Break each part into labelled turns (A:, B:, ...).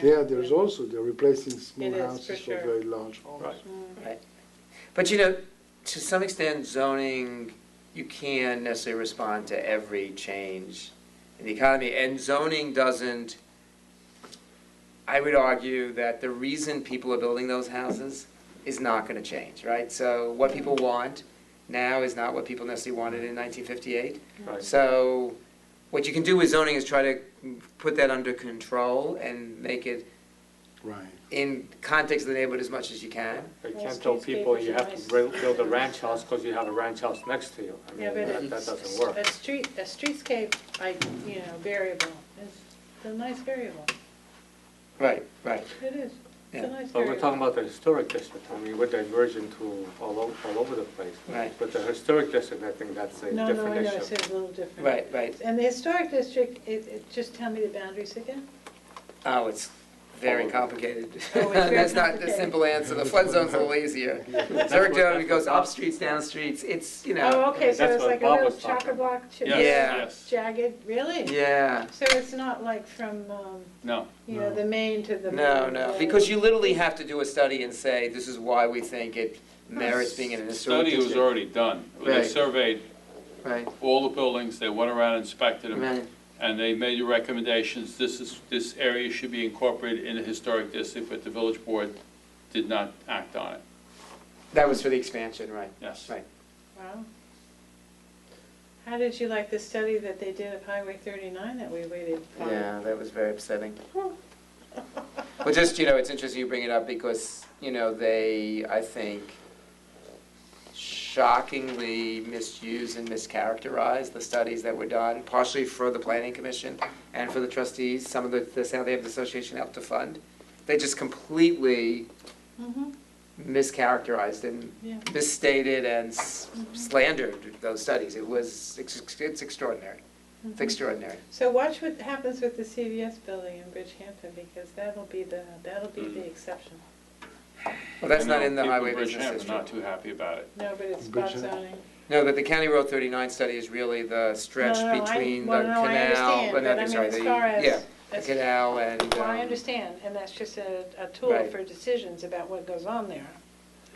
A: There, there's also, they're replacing small
B: It is, for
A: houses for
B: sure.
A: very large homes.
C: Right.
D: But you know, to some extent, zoning, you can't necessarily respond to every change in the economy, and zoning doesn't, I would argue that the reason people are building those houses is not gonna change, right? So what people want now is not what people necessarily wanted in nineteen fifty-eight.
C: Right.
D: So what you can do with zoning is try to put that under control and make it
A: Right.
D: in context of the neighborhood as much as you can.
C: You
B: Well,
C: can't tell people you have to
B: skyscrapers are
C: build,
B: nice.
C: build a ranch house because you have a ranch house next to you. I
B: Yeah,
C: mean,
B: but
C: that, that
B: it's-
C: doesn't work.
B: A street, a streetscape, I, you know, variable, is a nice variable,
D: Right, right.
B: it is, it's
D: Yeah.
B: a nice
C: But we're talking
B: variable.
C: about the historic district, I mean, we're diverging to all over, all over the place.
D: Right.
C: But the historic district, I think that's
B: No,
C: a
B: no, I
C: different
B: know, it's a
C: issue.
B: little different.
D: Right, right.
B: And the historic district, it, it, just tell me the boundaries again?
D: Oh, it's very complicated.
B: Oh, it's very
D: That's not the
B: complicated.
D: simple answer. The flood zone's a little easier. Zurich Road goes up streets, down streets. It's, you know,
B: Oh, okay, so
C: that's
B: it's
C: what
B: like a
C: Bob
B: little
C: was talking
B: chock-a-block, ch-
D: Yes, Yeah.
E: yes.
B: jagged, really?
D: yeah.
B: So it's not like from, um,
E: No.
B: you know,
A: No.
B: the main to the.
D: No,
B: main,
D: no,
B: uh,
D: because you literally have to do a study and say, this is why we think it merits being in an
E: The
D: historic
E: study was
D: district.
E: already done. They
D: Right.
E: surveyed
D: Right,
E: all the buildings, they went around, inspected them,
D: right,
E: and they made the recommendations, this is, this area should be incorporated in a historic district, but the village board did not act on it.
D: that was for the expansion, right,
E: Yes.
D: right.
B: Wow. How did you like the study that they did of Highway thirty-nine that we waited for?
D: Yeah, that was very upsetting. Well, just, you know, it's interesting you bring it up because, you know, they, I think, shockingly misused and mischaracterized the studies that were done, partially for the planning commission and for the trustees, some of the, the South Hampton Association helped to fund. They just completely
B: Mhm,
D: mischaracterized and
B: yeah.
D: misstated and s- slandered those studies. It was, it's it's extraordinary, it's extraordinary.
B: Mm-hmm. So watch what happens with the CVS building in Bridgehampton, because that'll be the, that'll be the exception.
D: Well, that's
E: I
D: not
E: know
D: in the
E: people
D: highway
E: in
D: business
E: Bridgehampton
D: district.
E: are not too happy about it.
B: No, but it's spot
A: Bridgehampton?
B: zoning.
D: No, but the County Road 39 study is really the stretch
B: No, no, I-
D: between the
B: well, no, I
D: canal,
B: understand,
D: but
B: but I
D: not,
B: mean,
D: sorry,
B: as
D: the,
B: far as-
D: yeah, the
B: that's-
D: canal and,
B: Well, I
D: um,
B: understand, and that's just a, a tool
D: Right.
B: for decisions about what goes on there.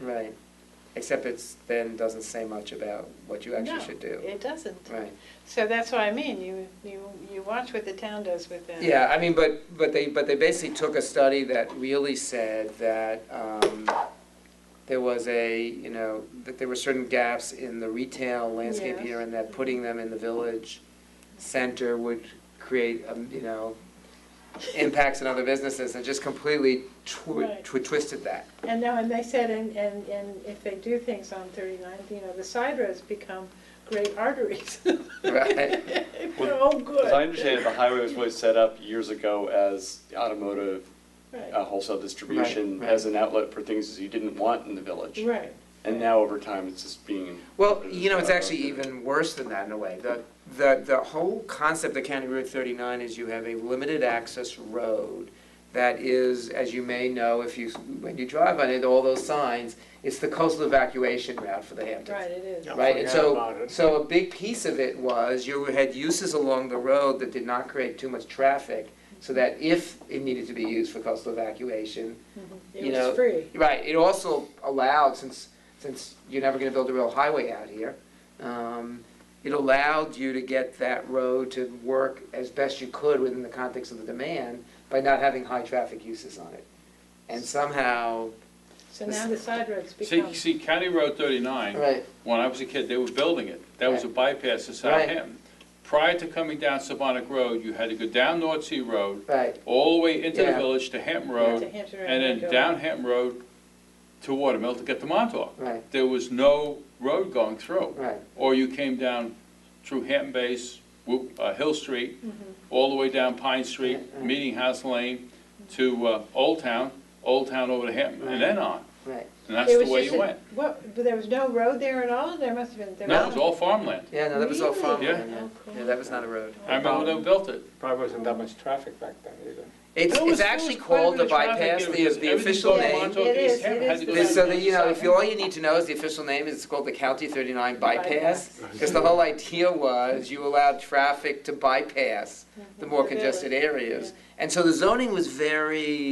D: right. Except it's, then doesn't say much about what you actually
B: No,
D: should do.
B: It doesn't.
D: Right,
B: So that's what I mean, you, you, you watch what the town does with that.
D: yeah, I mean, but, but they, but they basically took a study that really said that um, there was a, you know, that there were certain gaps in the retail landscape
B: Yes.
D: here and that putting them in the village center would create, um, you know, impacts on other businesses, and just completely twi-
B: Right.
D: twi- twisted that.
B: And no, and they said, and, and, and if they do things on thirty-nine, you know, the side roads become great arteries.
D: Right.
B: They're all good.
F: As I understand it, the highway was really set up years ago as automotive
B: Right.
F: uh, wholesale distribution,
D: right.
F: as an outlet for things that you didn't want in the village.
B: Right,
F: And now over time, it's just being.
D: Well, you know, it's actually even worse than that in a way. The, the, the whole concept of County Route 39 is you have a limited access road that is, as you may know, if you, when you drive on it, all those signs, it's the coastal evacuation route for the Hamptons.
B: right, it is.
C: Yeah.
D: right? And
C: Forget
D: so,
C: about it.
D: so a big piece of it was you had uses along the road that did not create too much traffic, so that if it needed to be used for coastal evacuation,
B: Mhm.
D: you
B: It
D: know,
B: was free.
D: right, it also allowed, since, since you're never gonna build a real highway out here, um, it allowed you to get that road to work as best you could within the context of the demand by not having high traffic uses on it. And somehow,
B: So now the side roads
E: See,
B: become,
E: see, County Road 39,
D: right,
E: when I was a kid, they were building it. That was a bypass to
D: Right.
E: Southampton. Prior to coming down Sabonic Road, you had to go down North Sea Road,
D: right,
E: all the way into the
D: Yeah.
E: village to Hampton
B: to
E: Road,
B: Hampton Road.
E: and then
B: go.
E: down Hampton Road to Watermill to get to Montauk.
D: right,
E: There was no road going through.
D: right,
E: Or you came down through Hampton Bays, Wo- uh, Hill Street, all the way down Pine Street,
D: Right.
E: Meeting House Lane, to uh, Old Town, Old Town over to Hampton, and then on.
D: right.
E: And
B: It
E: that's the
B: was
E: way
B: just
E: you
B: a-
E: went.
B: What, but there was no road there at all? There must have been, there was.
E: No, it was all farmland.
D: Yeah, no, that was all
B: Really?
E: Oh,
D: farmland,
B: Yeah.
D: yeah. Yeah, that was not a road.
E: I remember when they built it.
C: Probably wasn't that much traffic back then either.
D: It's,
E: There
D: it's
E: was- there
D: actually
E: was quite a
D: called
E: bit
D: the
E: of traffic
D: bypass,
E: here
D: the,
E: because
D: the official
E: everything
D: name.
E: going on to
B: It
E: East
B: is, it
E: Hampton
B: is
E: had to go
B: the
D: This,
E: down
D: so
E: to
D: that,
E: the
D: you know,
E: side.
D: if you, all you need to know is the official name is it's called the County thirty-nine bypass.
A: Bypass.
D: Because the whole idea was you allowed
B: Mm-hmm.
D: traffic to bypass the more congested areas. And so the zoning was very